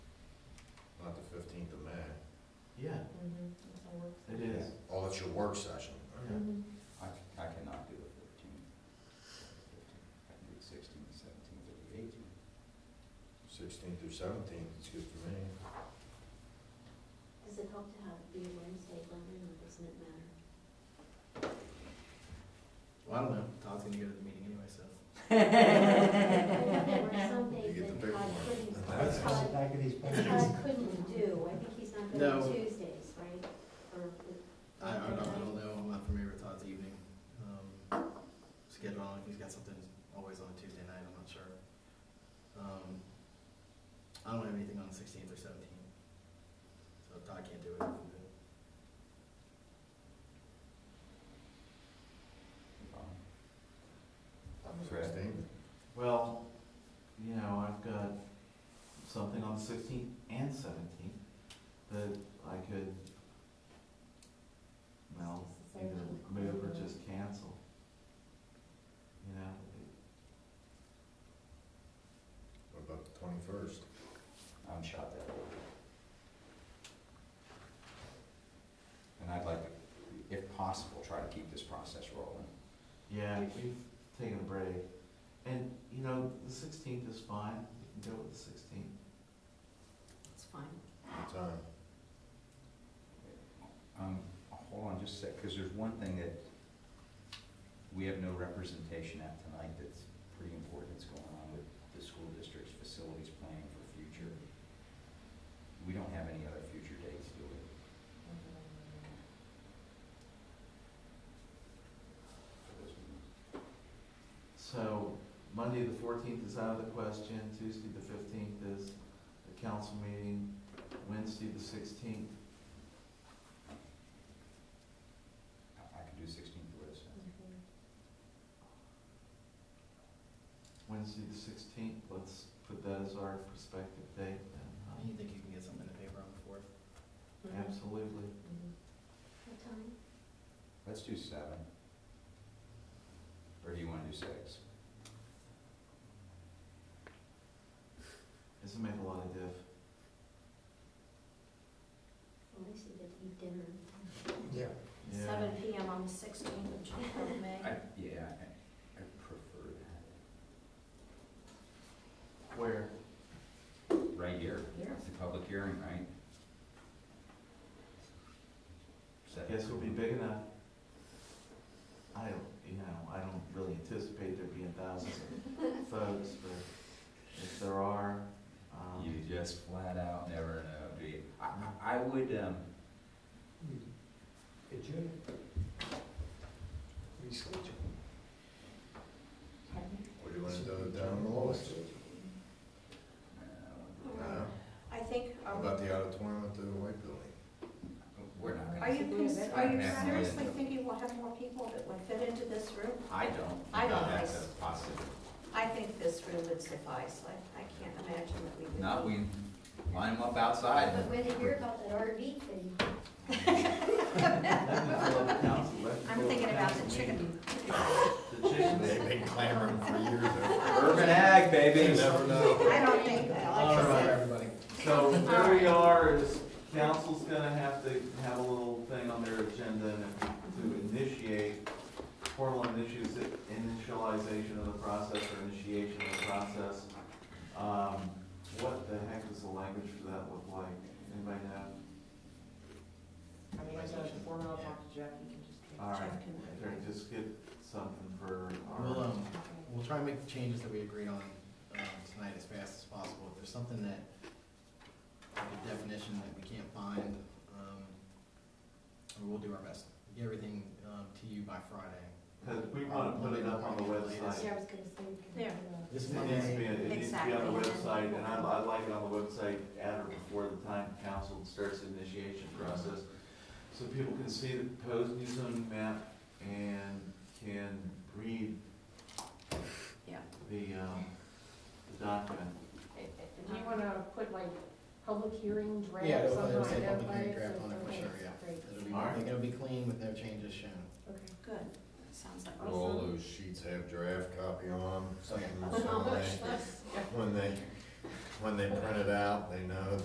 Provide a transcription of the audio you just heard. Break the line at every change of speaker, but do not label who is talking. not the fifteenth of May.
Yeah, it is.
Oh, that's your work session.
Yeah.
I, c- I cannot do the fifteenth. I can do the sixteenth, seventeenth, or the eighteenth.
Sixteenth through seventeenth, it's good for me.
Does it help to have, be a Wednesday, London, or doesn't it matter?
Well, I don't know, Todd's gonna go to the meeting anyway, so.
There were some
You
days
get
that
the big
Todd
one.
couldn't,
That's-
Todd,
Back of these pictures.
Todd couldn't do, I think he's not good on
No.
Tuesdays, right? Or the-
I, I don't, I don't know, I'm not familiar with Todd's evening, um, schedule, I don't know if he's got something always on a Tuesday night, I'm not sure. Um, I don't have anything on the sixteenth or seventeenth, so if Todd can't do it, I can do it.
Right.
Sixteenth,
Well, you know, I've got something on the sixteenth and seventeenth that I could, well, either move or just cancel. You know, it-
what about the twenty-first?
I'm shot that way. And I'd like, to, if possible, try to keep this process rolling.
yeah, we've taken a break. And, you know, the sixteenth is fine, we can go with the sixteenth.
It's fine.
What time?
Um, hold on just a sec, because there's one thing that we have no representation at tonight that's pretty important that's going on with the school district's facilities planning for future. We don't have any other future dates, do we? For those meetings.
So Monday, the fourteenth is out of the question, Tuesday, the fifteenth is the council meeting, Wednesday, the sixteenth,
I I could do sixteenth or the seventh.
Wednesday the sixteenth, let's put that as our prospective date
Do
then,
You think you can get something in the paper on the fourth?
huh? Absolutely.
What time?
Let's do seven. Or do you wanna do six?
Doesn't make a lot of diff.
Well, At least you get to eat dinner.
Yeah.
Yeah.
Seven P M on the sixteenth of Ju- of May.
I, yeah, I, I prefer that.
Where?
Right here,
Here.
it's a public hearing, right? Seven.
Guess will be big enough. I don't, you know, I don't really anticipate there being thousands of folks, but if there are,
You
um,
just flat out never know, do you? I, I I would, um,
Could you reschedule?
What do you wanna do down the lowest?
uh,
No?
I think,
How
um,
about the auditorium at the White Building?
we're not
are
gonna,
you, cons- are you
Yeah.
seriously thinking we'll have more people that would fit into this room?
I don't.
I don't
That's
think-
a possibility.
I think this room would suffice, like, I can't imagine that we would.
Not, we line them up outside.
But when they hear about that RV thing,
let me fill up the council, let me
I'm
fill up
thinking about the
council meeting.
chicken.
The chicken.
They've been clamoring for years.
Urban ag,
You
baby.
never know.
I don't think, like
All
I
right.
said,
everybody.
So where we are is council's gonna have to have a little thing on their agenda and to initiate formal initius- initialization of the process or initiation of the process. Um, what the heck does the language for that look like? Anybody know?
I mean, I got a form I'll talk to Jack, you can just.
All right,
Jack and-
there, just get something for
We'll,
our,
um, we'll try and make the changes that we agreed on, um, tonight as fast as possible. If there's something that, like a definition that we can't find, um, we will do our best. to Get everything, um, to you by Friday.
cause we wanna put it up on the website.
yeah, I was gonna say. we can-
There.
This
It needs to be,
Monday,
it needs to be on the
Exactly.
website, and I'd, I'd like it on the website at or before the time council starts the initiation process. So people can see the proposed new zoning map and can read
Yeah.
the, um, the document.
Do you wanna put like public hearing draft
yeah, it'll,
somehow
it'll say public hearing
identified?
draft
so
on it for
it's
sure,
okay?
yeah.
Great,
It'll be,
Alright.
I think it'll be clean with no changes shown.
okay.
good, sounds like.
Will all those sheets have draft copy on them? Something, so
How
when
much
they,
less?
when they, when they print it out, they know